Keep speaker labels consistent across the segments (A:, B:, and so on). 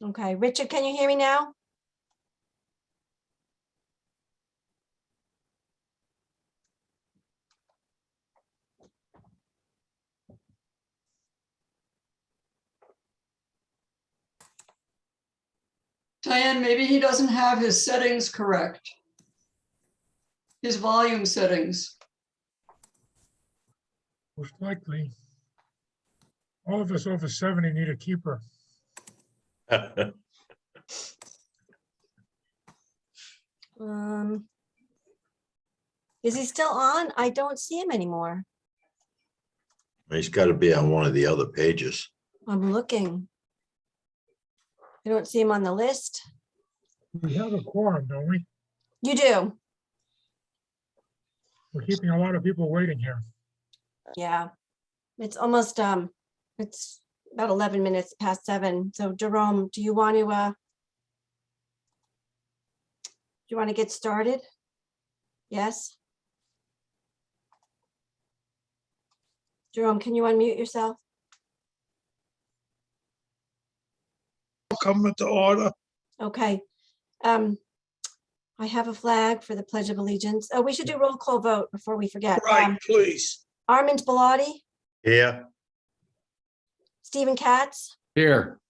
A: Okay, Richard, can you hear me now?
B: Diane, maybe he doesn't have his settings correct. His volume settings.
C: Most likely. All of us over seventy need a keeper.
A: Um. Is he still on? I don't see him anymore.
D: He's got to be on one of the other pages.
A: I'm looking. I don't see him on the list.
C: We have a quorum, don't we?
A: You do?
C: We're keeping a lot of people waiting here.
A: Yeah. It's almost, um, it's about eleven minutes past seven. So Jerome, do you want to, uh, do you want to get started? Yes? Jerome, can you unmute yourself?
E: Come to order.
A: Okay. Um, I have a flag for the Pledge of Allegiance. Oh, we should do roll call vote before we forget.
E: Right,
A: Um,
E: please.
A: Armand Biladi,
D: Yeah,
A: Stephen Katz,
F: Here,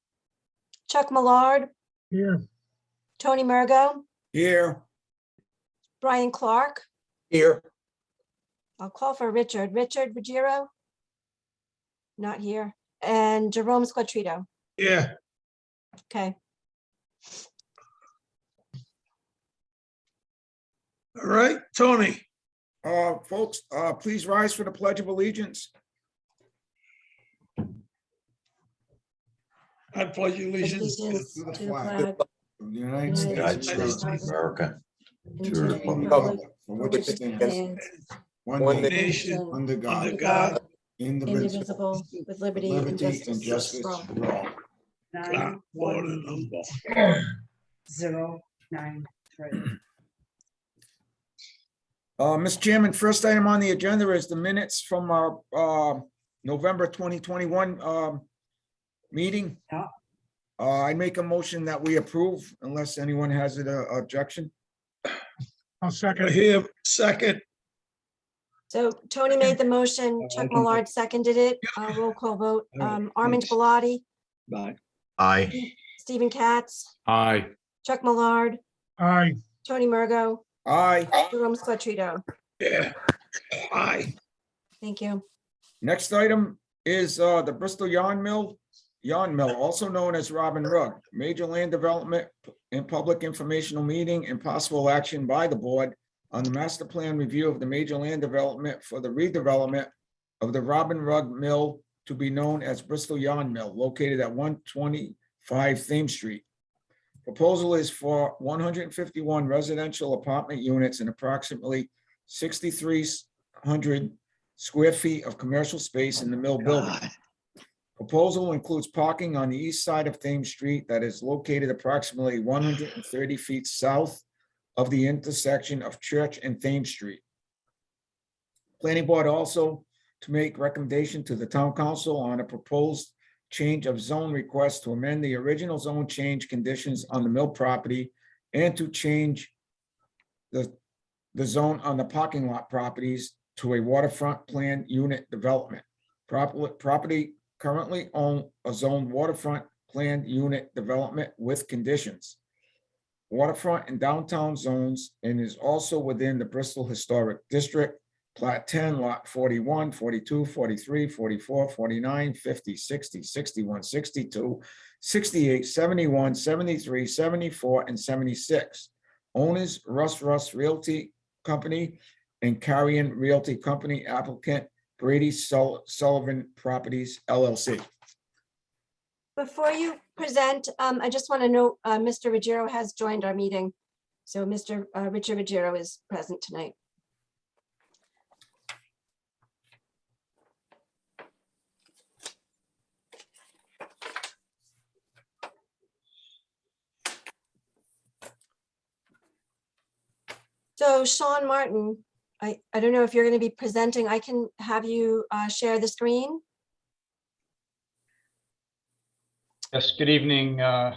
A: Chuck Millard,
C: Here,
A: Tony Mergo,
E: Here.
A: Brian Clark.
E: Here.
A: I'll call for Richard. Richard Ruggiero? Not here. And Jerome Squatrito.
E: Yeah,
A: Okay,
E: all right, Tony.
G: Uh, folks, uh, please rise for the Pledge of Allegiance.
E: I pledge allegiance. to-
A: Allegiance
G: to the
A: to the
G: flag.
A: flag
G: of the United
A: United
D: United
G: States.
D: States of America.
A: and
D: to
A: to
D: the
A: the
D: republic
A: republic
G: For
A: for
G: which it
A: which it
G: stands,
A: stands,
G: one nation,
E: Nation,
G: under
E: Under
G: God,
E: God.
G: indivisible,
A: indivisible, with
G: with
A: liberty and
G: liberty and
A: justice
G: justice
A: for all.
G: for all.
E: not
H: nine,
E: one
H: one,
E: and number.
H: zero, nine, three.
G: Uh, Mr. Chairman, first item on the agenda is the minutes from our, uh, November twenty twenty-one, um, meeting.
H: Yeah.
G: Uh, I make a motion that we approve unless anyone has an uh, objection.
C: I'll
E: Right
C: second.
E: Here, second,
A: So Tony made the motion,
E: I
A: Chuck
E: think that-
A: Millard seconded it, Uh, roll call vote,
E: All right,
A: Um, Armand
E: thanks.
A: Biladi,
E: Bye.
D: I,
A: Stephen Katz,
F: aye,
A: Chuck Millard,
C: Aye,
A: Tony Mergo,
G: Aye.
A: Jerome Squatrito.
E: yeah, aye,
A: Thank you.
G: Next item is uh, the Bristol Yarn Mill, Yarn Mill, also known as Robin Rugg, major land development and public informational meeting and possible action by the board on the master plan review of the major land development for the redevelopment of the Robin Rugg Mill to be known as Bristol Yarn Mill, located at one twenty-five Thames Street. Proposal is for one hundred and fifty-one residential apartment units and approximately sixty-three hundred square feet of commercial space in the mill building. Proposal includes parking on the east side of Thames Street that is located approximately one hundred and thirty feet south of the intersection of Church and Thames Street. Planning Board also to make recommendation to the town council on a proposed change of zone request to amend the original zone change conditions on the mill property and to change the, the zone on the parking lot properties to a waterfront plan unit development. Properly, property currently own a zone waterfront planned unit development with conditions. Waterfront and downtown zones and is also within the Bristol Historic District, Plat 10, Lot 41, 42, 43, 44, 49, 50, 60, 61, 62, 68, 71, 73, 74, and 76. Owners Russ Russ Realty Company and Carrion Realty Company applicant Brady Sul- Sullivan Properties LLC.
A: Before you present, um, I just want to note, uh, Mr. Ruggiero has joined our meeting. So Mr. uh, Richard Ruggiero is present tonight. So Sean Martin, I, I don't know if you're going to be presenting. I can have you, uh, share the screen.
I: Yes, good evening, uh,